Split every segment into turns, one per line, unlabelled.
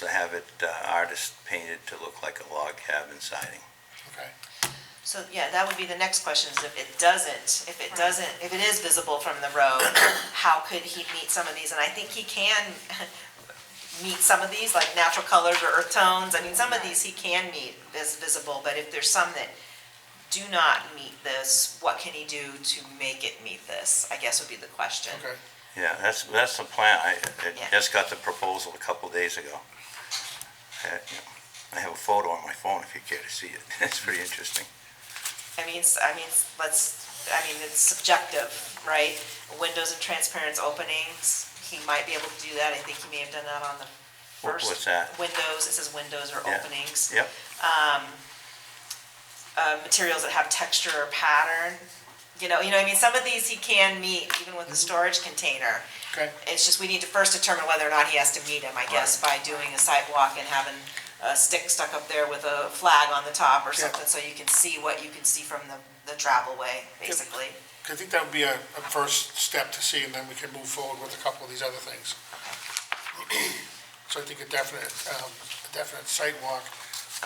to have it uh, artist painted to look like a log cabin siding.
Okay.
So, yeah, that would be the next question, is if it doesn't, if it doesn't, if it is visible from the road, how could he meet some of these? And I think he can meet some of these, like natural colors or earth tones, I mean, some of these he can meet as visible, but if there's some that do not meet this, what can he do to make it meet this, I guess would be the question.
Okay.
Yeah, that's, that's the plan. I, I
Yeah.
just got the proposal a couple days ago. Uh, you know, I have a photo on my phone if you care to see it. It's pretty interesting.
I mean, s- I mean, s- let's, I mean, it's subjective, right? Windows and transparent openings, he might be able to do that, I think he may have done that on the
What-
first.
what's that?
Windows, it says windows or
Yeah.
openings.
Yep,
Uh, materials that have texture or pattern, you know, you know, what I mean, some of these he can meet even with the
Mm-hmm.
storage container.
Okay.
It's just, we need to first determine whether or not he has to meet him, I guess, by doing a sidewalk and having a stick stuck up there with a flag on the top or
Yeah.
something, so you can see what you can see from the, the travel way, basically.
I think that would be a, a first step to see, and then we can move forward with a couple of these other things. So I think a definite, um, a definite sidewalk,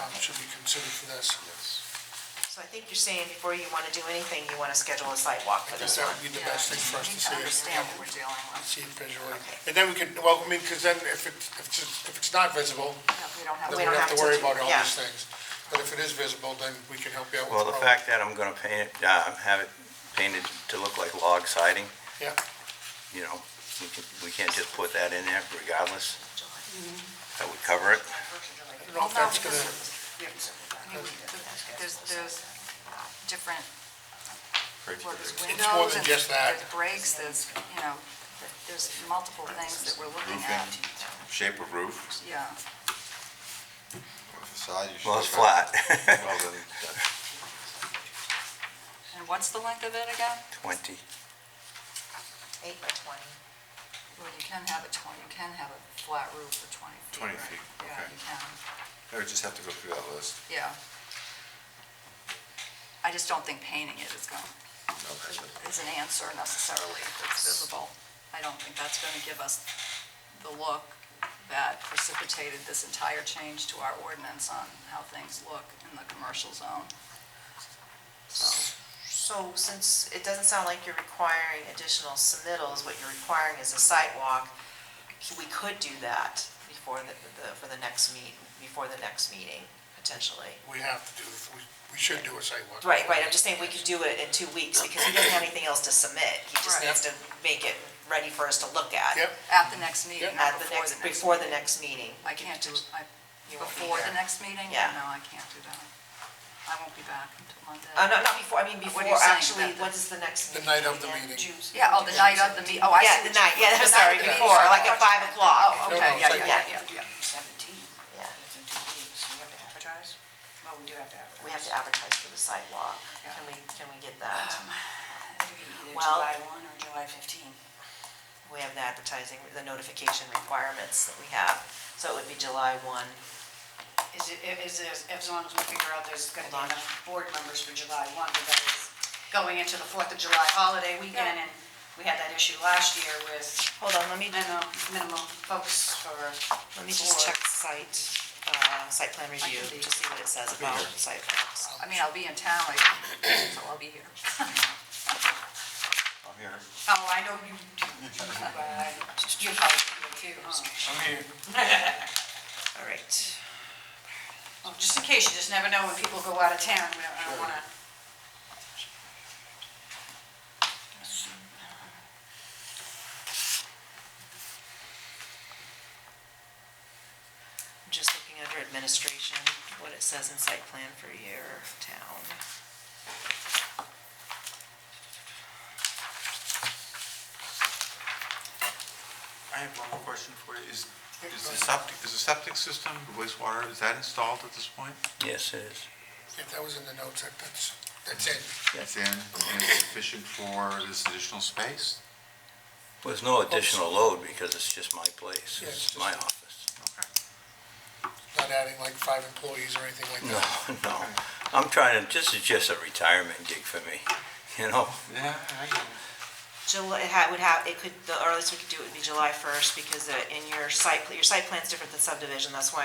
um, should be considered for this.
So I think you're saying before you want to do anything, you want to schedule a site walk
I
for
think
this
that
one.
would be the best thing for us to
Need
see.
to understand what we're dealing with.
See it visually.
Okay.
And then we can, well, I mean, because then if it's, if it's, if it's not visible,
We don't have,
then
We
we
don't
don't have to
have to
worry
do-
about all
yeah.
these things. But if it is visible, then we can help you out with.
well, the
problem.
fact that I'm gonna paint it, uh, have it painted to look like log siding,
Yeah,
you know, we can, we can't just put that in there regardless. That would cover it.
I don't know if that's gonna,
there's, there's different, well, there's
It's more
windows
than
and
just that.
there's breaks, there's, you know, there's multiple things that we're looking at.
shape of roof,
Yeah,
or facade. you should
Well, it's
look at-
flat.
Well, then, that-
and what's the length of it again?
Twenty.
Eight by twenty.
Well, you can have a twenty, you can have a flat roof for twenty feet.
20
right?
feet,
Yeah,
okay.
you can,
I would just have to go through that list.
yeah. I just don't think painting it is going,
No, that's it.
is an answer necessarily that's visible. I don't think that's going to give us the look that precipitated this entire change to our ordinance on how things look in the commercial zone. So,
So since it doesn't sound like you're requiring additional submittals, what you're requiring is a site walk, we could do that before the, the, for the next meet, before the next meeting, potentially.
we have to do, we, we should do a sidewalk.
Right, right, I'm just saying we could do it in two weeks because he doesn't have anything else to submit. He just
Right.
needs to make it ready for us to look at.
Yep,
At the next meeting,
Yeah.
not
At the
before
next,
the next.
before the next meeting.
I can't do, I,
You won't be
before the
here.
next meeting?
Yeah.
No, I can't do that. I won't be back until Monday.
Uh, no, not before, I mean, before,
What are you saying
actually, what
about
is the next
The
meeting?
night of the
again?
meeting.
June-
Yeah, oh, the night of the meet, oh, I see.
Yeah, the
what you-
night, yeah, I'm
the night
sorry,
of the meeting.
before, like at five o'clock.
Oh,
No,
okay,
no, it's
yeah, yeah,
like-
yeah, yeah, yeah.
Seventeen,
Yeah,
that's in two weeks, so you have to advertise? Well, we do have to advertise.
we have to advertise for the sidewalk.
Yeah.
Can we, can we get that?
It'll be either
Well-
July one or July fifteen.
We have the advertising, the notification requirements that we have, so it would be July one.
Is it, is it, as long as we figure out there's gonna be
Hold on.
enough board members for July one, because that is going into the Fourth of July holiday weekend, and
Yeah.
we had that issue last year with
Hold on, let me,
minimum, minimum folks for.
let me just check site, uh, site plan review,
can be-
to see what it says about site plans.
I mean, I'll be in town, like, so I'll be here.
I'm here.
Oh, I know you, uh, you probably do too, huh?
I'm here.
All right.
Well, just in case, you just never know when people go out of town, we don't, I don't wanna.
I'm Just looking under administration, what it says in site plan for your town.
I have one more question for you. Is, is the septic, is the septic system, the wastewater, is that installed at this point?
Yes, it is.
yeah, that was in the notes, that- that's, that's it.
It's in, and it's sufficient for this additional space?
There's no additional load because it's just my place,
Yeah,
it's
it's just-
my office.
Not
Okay.
adding like five employees or anything like
No,
that.
no, I'm trying to, this is just a retirement gig for me, you know?
Yeah, I get it.
July, it ha- would have, it could, the earliest we could do it would be July first, because uh, in your site, pl- your site plan's different than subdivision, that's why